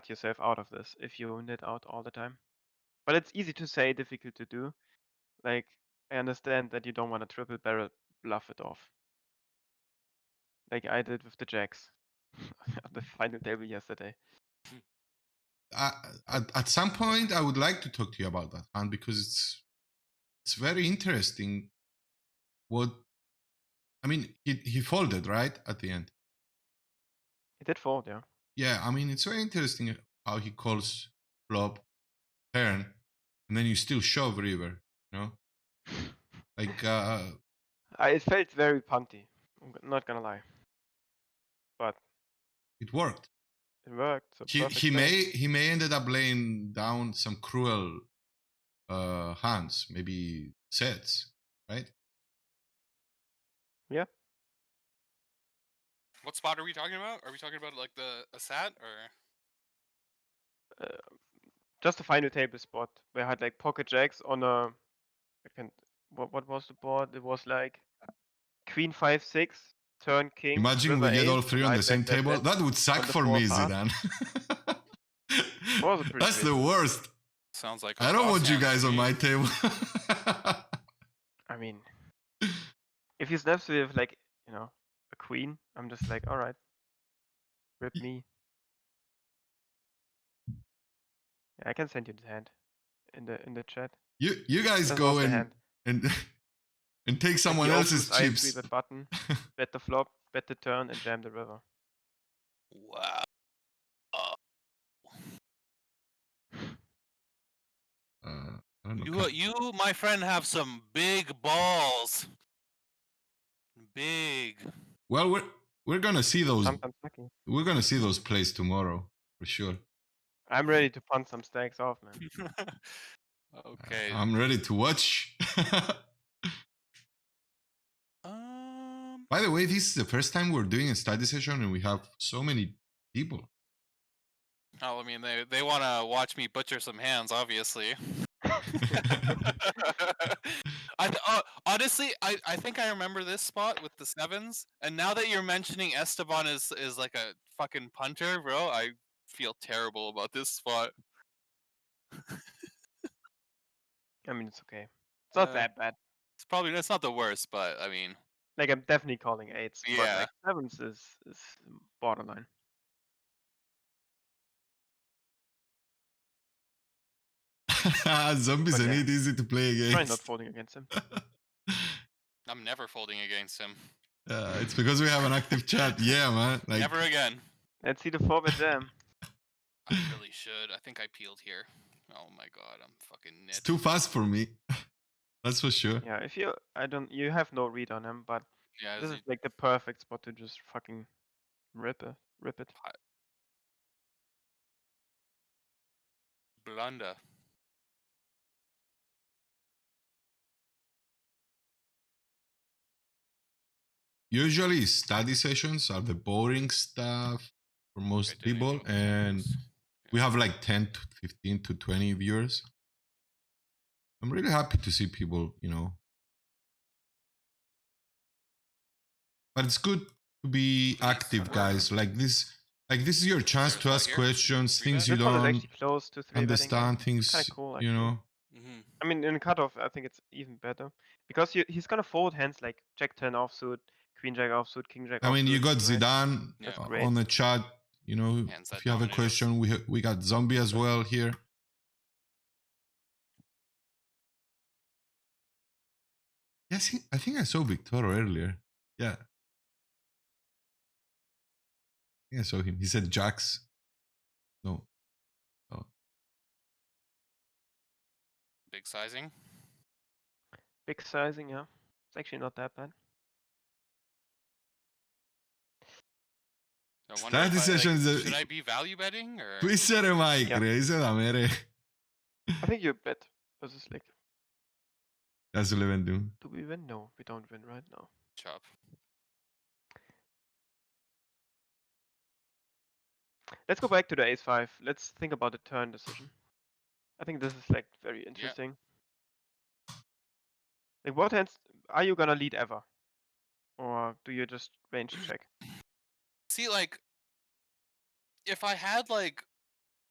cut yourself out of this if you knit out all the time. But it's easy to say, difficult to do. Like, I understand that you don't want to triple barrel bluff it off. Like I did with the jacks on the final table yesterday. I, at, at some point, I would like to talk to you about that hand because it's it's very interesting. What I mean, he he folded right at the end. It did fold, yeah. Yeah, I mean, it's very interesting how he calls flop, turn, and then you still shove river. You know, like uh, I, it felt very punty. I'm g- not gonna lie. it worked. It worked. So he perfect he play. may he may ended up laying down some cruel uh hands maybe sets right What spot are we talking about? Are we talking about like the a sat or? just a final table spot where I had like pocket jacks on a. I can. What what was the board? It was like queen five six turn king. imagine we river get all eight, three on the nine, same black, black, table black. that would suck on the for me four Zidane was a pretty that's the worst Sounds like. I a don't boss want you hand to guys on me. my table I mean, if he snaps with like you know a queen, I'm just like all right, rip Y- me. Yeah, I can send you the hand in the in the chat. you you guys That go was the and hand. and and take Like, someone he else's opens I agree chips with button, bet the flop, bet the turn, and jam the river. Wow. uh, I don't know, You, uh, can- you, my friend, have some big balls. Big. well we're we're gonna see those Sometimes lucky. we're gonna see those plays tomorrow for sure I'm ready to punt some stacks off, man. okay. I'm ready to watch. Um. By the way, this is the first time we're doing a study session and we have so many people. Oh, I mean, they they want to watch me butcher some hands, obviously. I th- uh, honestly, I, I think I remember this spot with the sevens, and now that you're mentioning Esteban is is like a fucking punter, bro, I feel terrible about this spot. Hmm. I mean, it's okay. It's not Uh, that bad. It's probably it's not the worst, but I mean, Like I'm definitely calling eights, but Yeah. like sevens is is borderline. Zombies But and yeah. it easy to play Try not against. folding against him. I'm never folding against him. Uh, it's because we have an active chat. Yeah, man. Like, never again. Let's see the forward jam. I really should. I think I peeled here. Oh my god, I'm fucking it's nit. too fast for me. That's for sure. Yeah, if you, I don't, you have no read on him, but yeah, this it's- is like the perfect spot to just fucking rip it, rip it. blunder. Usually, study sessions are the boring stuff for most Okay, donating people, all the and funds. we have like 10 to 15 to 20 viewers. I'm really happy to see people, you know. But it's good to be active, guys. Like this, like this is your chance There's to one ask here. questions, See things that? you This one is don't actually close to three understand, things Kinda cool, you know. Mhm. I mean, in cutoff, I think it's even better because you, he's gonna fold hands like jack ten offsuit, queen jack offsuit, king jack. I mean, you offsuit, right? got Zidane Yeah. uh, Great. on the chat. You know, Hands that if you have a dominate us. question, we ha- we got Zombie as well here. Yes, he- I think I saw Victoro earlier. Yeah, I think I saw him. He said Jax. No, Big sizing. Big sizing, yeah. It's actually not that bad. I wonder Strategy if I, like, sessions are- should I be value betting or? που είσαι ρε Μάικ Yeah. ρε, είσαι δαμέ ρε. I think you bet versus like, Γεια σου Λεβέντι do we win? No, we don't win right now. Chop. Let's go back to the ace five. Let's think about the turn decision. I think this is like very interesting. Like, what hands are you gonna lead ever, or do you just range check? See, like, if I had like